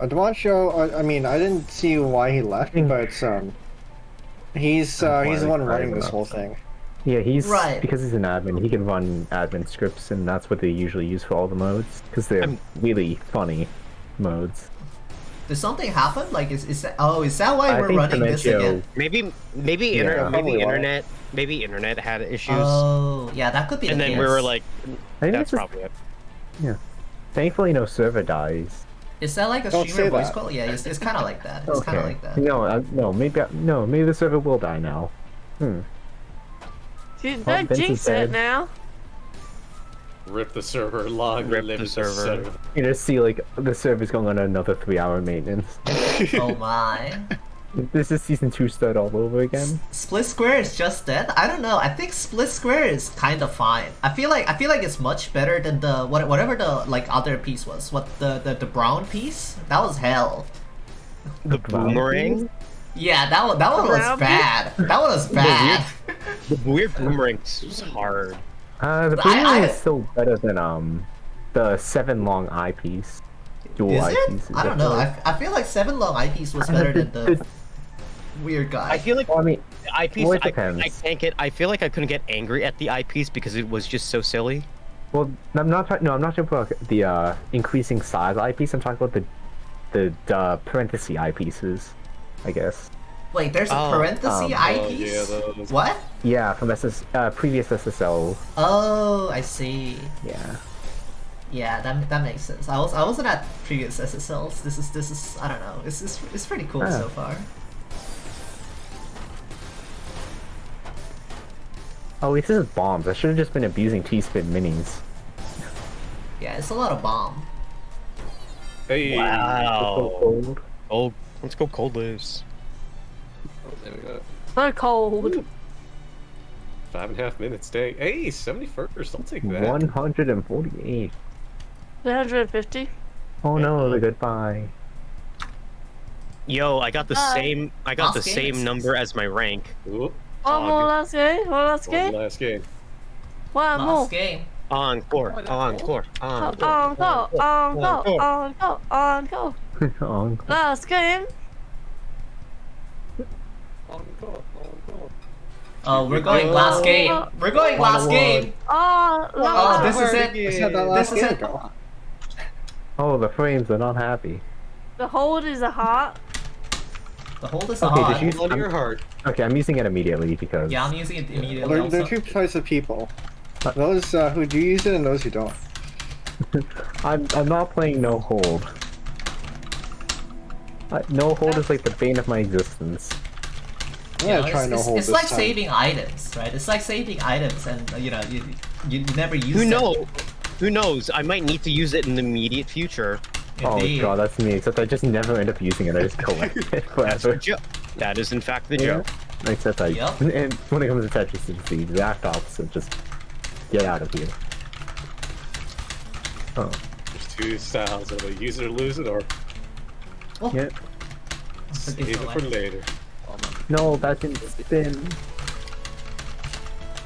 Uh, DiMaggio, I, I mean, I didn't see why he left, but um, he's uh, he's the one running this whole thing. Yeah, he's Right. because he's an admin. He can run admin scripts, and that's what they usually use for all the modes because they're I'm- really funny modes. Did something happen? Like, is, is that, oh, is that why I we're think running this Dimencio- again? Maybe maybe inter- Yeah. maybe Probably why. internet maybe internet had issues, Oh, yeah, that could be. and the then we case. were like, I think it's just- that's probably it. Thankfully, no server dies. is that like a Don't streamer say voice that. call? Yeah, it's, it's kind of like that. It's kind of Oh, like that. No, uh, no, maybe I, no, maybe the server will die now. Hmm. Dude, Well, don't Vince is jinx dead. it now. Rip the server. Long Rip live the the server. server. You just see like the server's going on another three-hour maintenance. Oh my. this is season two start all over again. Split Square is just dead. I don't know. I think Split Square is kind of fine. I feel like I feel like it's much better than the what whatever the like other piece was. What the the, the brown piece? That was hell. The Brown boomerang, Yeah, that one that one was Brown piece? bad. That one was bad. the weird boomerang was hard. Uh, the I- boomerang I- is still better than um the seven long eyepiece. Dual Is it? eyepieces, I don't know. I, I feel like Seven Long Eyepiece was better than the weird guy. I feel like Well, I mean, eyepiece. well, it I, depends. I can't get. I feel like I couldn't get angry at the eyepiece because it was just so silly. well, no, I'm not. talk- No, I'm not talking about the uh, increasing size eyepiece. I'm talking about the the uh, parenthesis eyepieces, I guess. Wait, there's a Oh, parenthesis um, Oh, yeah, eyepiece. that was- What? Yeah, from SS, uh, previous SSL. Oh, I see. Yeah. Yeah, that, that makes sense. I was I wasn't at previous SSLs. This is this is I don't know. It's it's, it's pretty cool Ah. so far. Oh, wait, this is bombs. I should have just been abusing T-spin minis. Yeah, it's a lot of bomb. Hey. Wow. Oh, let's go cold lives. There we go. So cold. Five and a half minutes. Dang. Hey, 71st. I'll take that. One hundred and forty-eight. 150. Oh no, the goodbye. Yo, I got the Bye. same. I got the Last game same is- number as my rank. Oop, One Oh, more good. last game. One last one game. last game. One more. Last game. Encore, encore, encore. On go. On go. On go. On go. Encore. Last game. Oh, we're going last game. We're going last game. Oh, Oh, this last is word. it. I said that This last is game it. ago. Oh, the frames are not happy. The hold is a heart. The hold is Okay, on. did you- Hold on to your heart. Okay, I'm using it immediately because Yeah, I'm using it There, immediately. there are also. two types of people: those uh, who do use it and those who don't. I'm I'm not playing no hold. Uh, no hold is like the bane of my existence. I'm You gonna know, try it's, no it's- hold it's this like time. saving items, right? It's like saving items, and uh, you know, you you, you never use Who them. knows? Who knows? I might need to use it in the immediate future. Indeed. Oh god, that's me. Except I just never end up using it. I just collect it That's the forever. joke. That is in fact the Yeah. joke. Except I Yep. and when it comes to Tetris, it's the exact opposite. Just get out of here. Oh There's two styles of it. Use it or lose it, or Oh, yeah. save forgive it my for life. later. No, that didn't spin.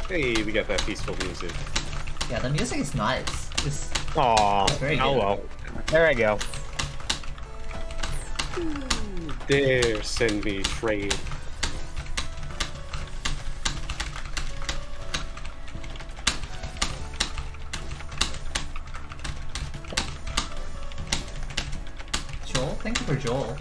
Hey, we got that peaceful music. Yeah, the music is nice. It's Aw, Very oh good. well. There I go. Dare send me trade. Joel. Thank you for Joel.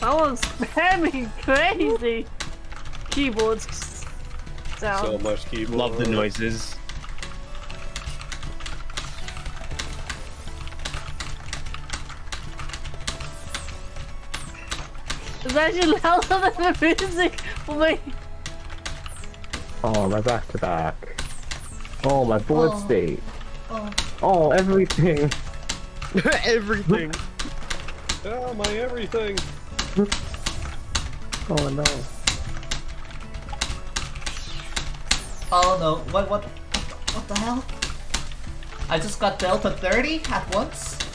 That one's spamming crazy. Keyboards. So Sound. much keyboard. Love the noises. It's actually louder than the music for me. Oh my back to back. Oh my board Oh. state. Oh, Oh everything. Everything. Oh, my everything. Oh no. oh no! What what what the hell? I just got Delta 30 at once.